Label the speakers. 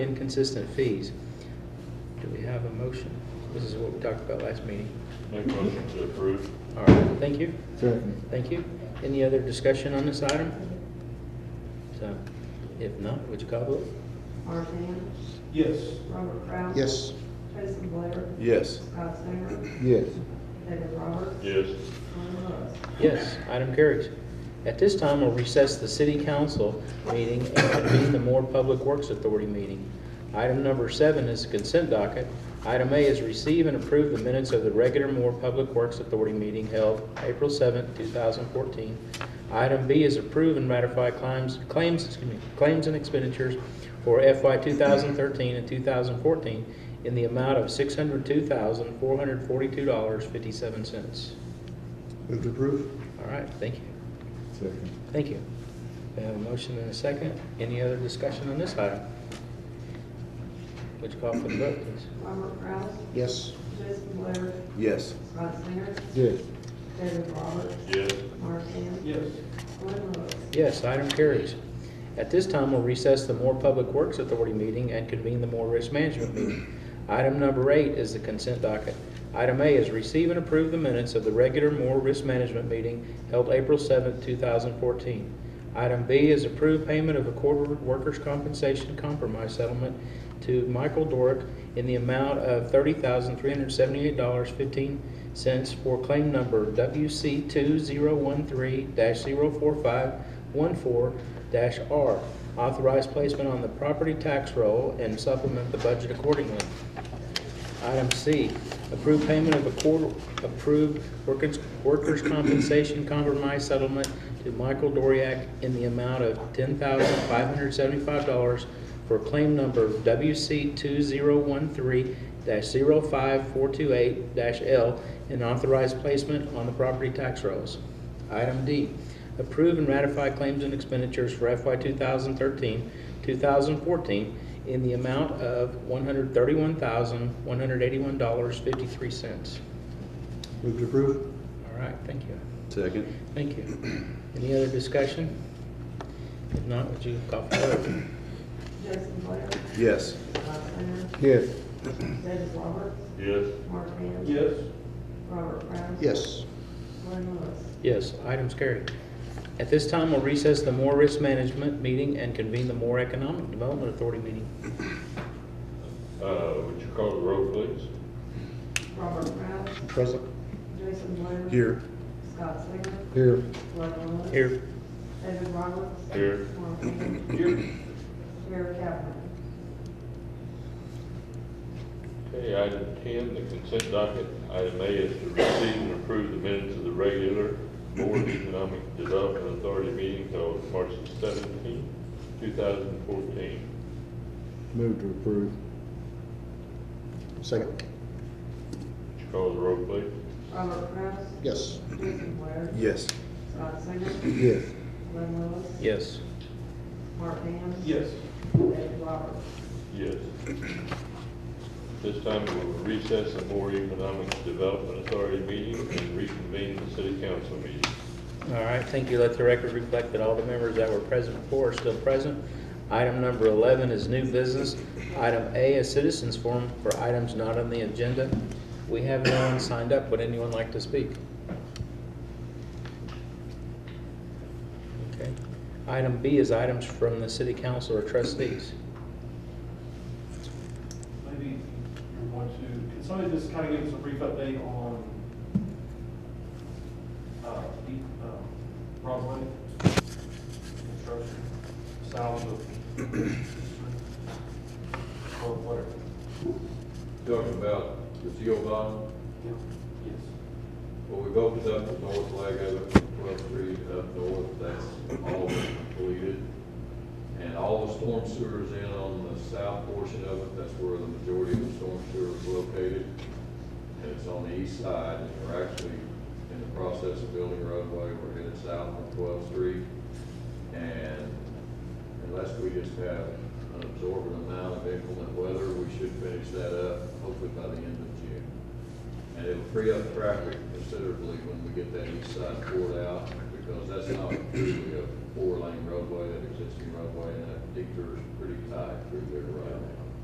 Speaker 1: inconsistent fees. Do we have a motion? This is what we talked about last meeting.
Speaker 2: Make motion to approve.
Speaker 1: All right, thank you,
Speaker 3: Second.
Speaker 1: thank you. Any other discussion on this item? So, if not, would you call the vote?
Speaker 4: Mark Ham,
Speaker 2: Yes.
Speaker 4: Robert Kraus.
Speaker 3: Yes.
Speaker 4: Jason Blair,
Speaker 2: Yes.
Speaker 4: Scott Singer,
Speaker 3: Yes.
Speaker 4: David Roberts,
Speaker 2: Yes.
Speaker 4: Glenn Lewis.
Speaker 1: Yes, item carries. At this time, we'll recess the city council meeting and convene the Moore Public Works Authority meeting. Item number seven is consent docket. Item A is receive and approve the minutes of the regular Moore Public Works Authority meeting held April 7th, 2014. Item B is approve and ratify claims, claims, excuse me, claims and expenditures for FY 2013 and 2014 in the amount of $602,442.57.
Speaker 3: Move to approve.
Speaker 1: All right, thank you.
Speaker 3: Second.
Speaker 1: Thank you. We have a motion and a second. Any other discussion on this item? Would you call for the vote, please?
Speaker 4: Robert Kraus,
Speaker 3: Yes.
Speaker 4: Jason Blair,
Speaker 2: Yes.
Speaker 4: Scott Singer,
Speaker 3: Yes.
Speaker 4: David Roberts,
Speaker 2: Yes.
Speaker 4: Mark Ham,
Speaker 2: Yes.
Speaker 4: Glenn Lewis.
Speaker 1: Yes, item carries. At this time, we'll recess the Moore Public Works Authority meeting and convene the Moore Risk Management meeting. Item number eight is the consent docket. Item A is receive and approve the minutes of the regular Moore Risk Management meeting held April 7th, 2014. Item B is approve payment of a quarter workers' compensation compromise settlement to Michael Dorick in the amount of $30,378.15 for claim number WC 2013-04514-R. Authorize placement on the property tax roll and supplement the budget accordingly. Item C, approve payment of a quarter, approved workers' workers' compensation compromise settlement to Michael Doriak in the amount of $10,575 for claim number WC 2013-05428-L and authorized placement on the property tax rolls. Item D, approve and ratify claims and expenditures for FY 2013, 2014 in the amount of $131,181.53.
Speaker 3: Move to approve.
Speaker 1: All right, thank you.
Speaker 2: Second.
Speaker 1: Thank you. Any other discussion? If not, would you call for the vote?
Speaker 4: Jason Blair,
Speaker 2: Yes.
Speaker 4: Scott Singer,
Speaker 3: Yes.
Speaker 4: David Roberts,
Speaker 2: Yes.
Speaker 4: Mark Ham.
Speaker 2: Yes.
Speaker 4: Robert Kraus.
Speaker 3: Yes.
Speaker 4: Glenn Lewis.
Speaker 1: Yes, item's carried. At this time, we'll recess the Moore Risk Management meeting and convene the Moore Economic Development Authority meeting.
Speaker 2: Uh, would you call the roll, please?
Speaker 4: Robert Kraus,
Speaker 3: Present.
Speaker 4: Jason Blair. Scott Singer,
Speaker 3: Here.
Speaker 4: Glenn Lewis.
Speaker 1: Here.
Speaker 4: David Roberts.
Speaker 2: Here.
Speaker 4: Mark Ham,
Speaker 2: Here.
Speaker 4: Mayor Kavler.
Speaker 2: Okay, item ten, the consent docket. Item A is to receive and approve the minutes of the regular Board of Economic Development Authority meeting held March seventeenth, two thousand fourteen.
Speaker 3: Move to approve. Second.
Speaker 2: Would you call the roll, please?
Speaker 4: Robert Kraus.
Speaker 3: Yes.
Speaker 4: Jason Blair.
Speaker 3: Yes.
Speaker 4: Scott Singer.
Speaker 3: Yes.
Speaker 4: Glenn Lewis.
Speaker 1: Yes.
Speaker 4: Mark Ham.
Speaker 2: Yes.
Speaker 4: David Roberts.
Speaker 2: Yes. This time we'll recess the Moore Economic Development Authority meeting and reconvene the city council meeting.
Speaker 1: All right, thank you. Let the record reflect that all the members that were present before are still present. Item number 11 is new business. Item A is citizens forum for items not on the agenda. We have no one signed up. Would anyone like to speak? Okay. Item B is items from the city council or trustees.
Speaker 5: Maybe you want to, can somebody just kind of give us a brief update on, uh, the, uh, Broadway construction, south of, or whatever?
Speaker 6: Talking about the CO bond,
Speaker 5: Yeah. Yes.
Speaker 6: well, we've opened up the north leg of it, twelve three up north, that's all been completed. And all the storm sewers in on the south portion of it, that's where the majority of the storm sewer is located. And it's on the east side, and we're actually in the process of building a roadway, we're headed south on twelfth street. And unless we just have an absorbent amount of inclement weather, we should finish that up hopefully by the end of June. And it'll free up traffic considerably when we get that east side poured out, because that's not truly a four-lane roadway, that existing roadway, and that detour's pretty tight through there right now.